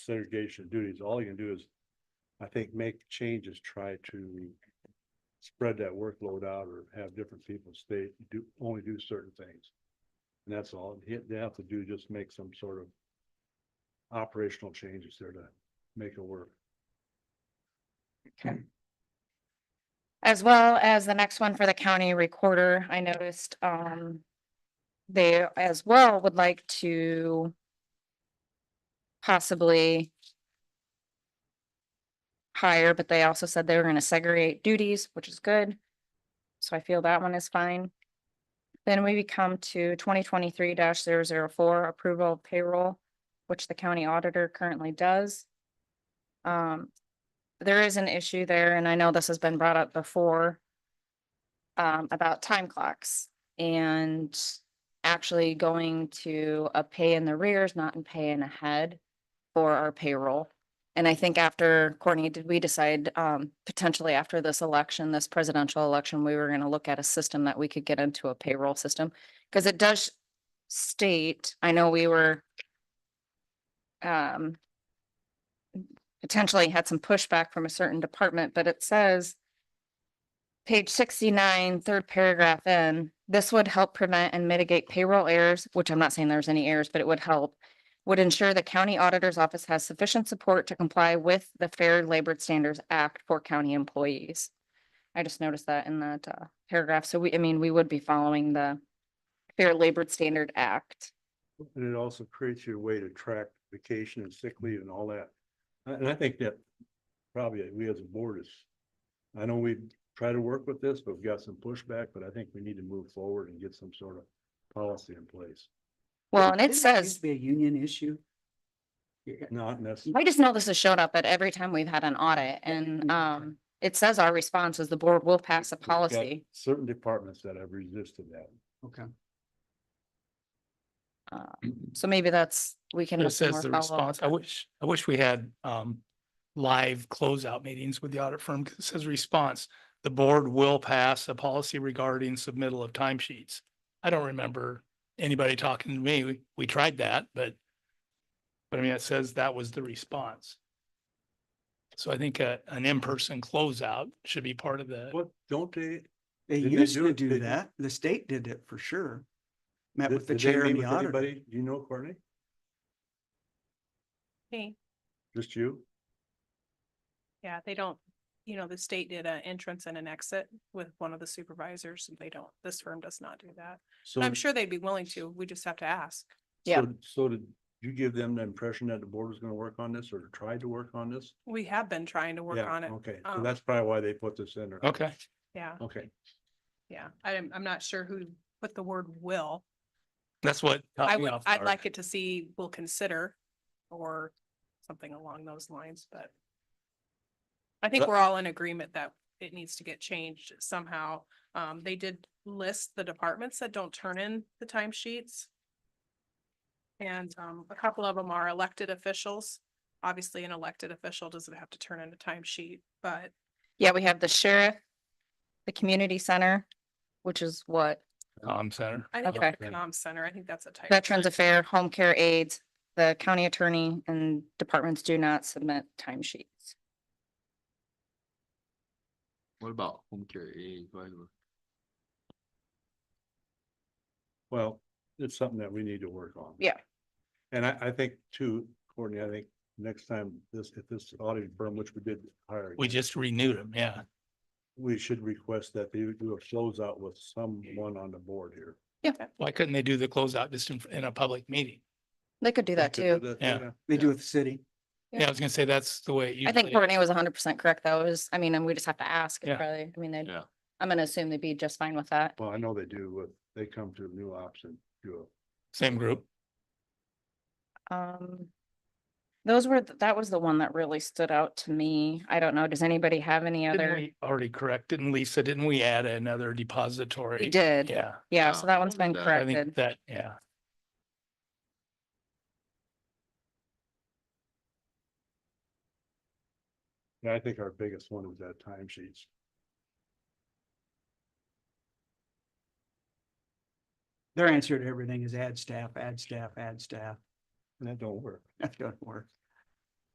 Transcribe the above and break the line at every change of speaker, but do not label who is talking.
segregation of duties, all you can do is, I think, make changes, try to spread that workload out or have different people stay, do, only do certain things. And that's all, He- they have to do, just make some sort of operational changes there to make it work.
As well as the next one for the county recorder, I noticed, um. They as well would like to. Possibly. Hire, but they also said they were gonna segregate duties, which is good. So I feel that one is fine. Then we become to twenty twenty-three 4 approval of payroll, which the county auditor currently does. Um, there is an issue there, and I know this has been brought up before. Um, about time clocks and actually going to a pay in the rears, not in pay in ahead for our payroll. And I think after Courtney, did we decide, um, potentially after this election, this presidential election, we were gonna look at a system that we could get into a payroll system? Cause it does state, I know we were um, potentially had some pushback from a certain department, but it says page sixty-nine, third paragraph in, this would help prevent and mitigate payroll errors, which I'm not saying there's any errors, but it would help. Would ensure the county auditor's office has sufficient support to comply with the Fair Labor Standards Act for county employees. I just noticed that in that uh, paragraph. So we, I mean, we would be following the Fair Labor Standard Act.
And it also creates your way to track vacation and sick leave and all that. And and I think that probably we as a board is, I know we try to work with this, but we've got some pushback, but I think we need to move forward and get some sort of policy in place.
Well, and it
Didn't that used
says.
to Be a union issue. Yeah,
Not necessarily,
I just know this has showed up at every time we've had an audit and um, it says our response is the board will pass a policy.
certain departments that have resisted that.
Okay.
Uh, So maybe that's, we can.
It
have some
says the
more follow-up.
response, I wish, I wish we had um live closeout meetings with the audit firm, 'cause it says response. The board will pass a policy regarding submittal of timesheets. I don't remember anybody talking to me. We, we tried that, but but I mean, it says that was the response. So I think a, an in-person closeout should be part of the,
What, don't they?
They
Didn't they
used
do
to
it? They-
do that. The state did it for sure. Met
did-
with the
did they
chair
meet
and the
with
auditor.
anybody? Do you know, Courtney?
Me,
Just you?
yeah, they don't, you know, the state did an entrance and an exit with one of the supervisors, and they don't, this firm does not do that.
So
And I'm sure they'd be willing to, we just have to ask.
Yeah.
so- So did you give them the impression that the board was gonna work on this or tried to work on this?
We have been trying to work
Yeah,
on it,
Okay, so
Um,
that's probably why they put this in there.
okay,
yeah,
Okay,
yeah, I'm, I'm not sure who put the word will.
that's what. caught
I
me
would,
off
I'd
guard.
like it to see, will consider, or something along those lines, but I think
That-
we're all in agreement that it needs to get changed somehow. Um, they did list the departments that don't turn in the timesheets, And, um, a couple of them are elected officials. Obviously, an elected official doesn't have to turn in a timesheet, but
Yeah, we have the sheriff, the community center, which is what
Um, center.
I think
Okay.
it's the comm center, I think that's a type.
Veterans Affair, Home Care Aids, the county attorney and departments do not submit timesheets.
What about home care aid? Why do-
well, it's something that we need to work on.
Yeah.
And I, I think too, Courtney, I think next time this, if this audit firm, which we did hire.
We
again,
just renewed them, yeah.
We should request that they do a closeout with someone on the board here.
Why couldn't they do the closeout just in, in a public meeting?
They could do that too.
Yeah.
They do with the city.
Yeah, I was gonna say that's the way. it
I think
usually-
Courtney was hundred percent correct though. It was, I mean, and we just have to ask. It's
Yeah.
Probably, I mean, they,
Yeah.
I'm gonna assume they'd be just fine with that.
Well, I know they do, with they come to new option, do
Same group.
Um, those were, th- that was the one that really stood out to me. I don't know, does anybody have any
Didn't
other?
we already correct? Didn't Lisa, didn't we add another depository?
We did,
Yeah,
yeah,
Yeah,
so that one's been
that-
I
corrected.
think that, yeah.
Yeah, I think our biggest one is that time sheets.
Their answer to everything is add staff, add staff, add staff.
and that don't work.
That doesn't work.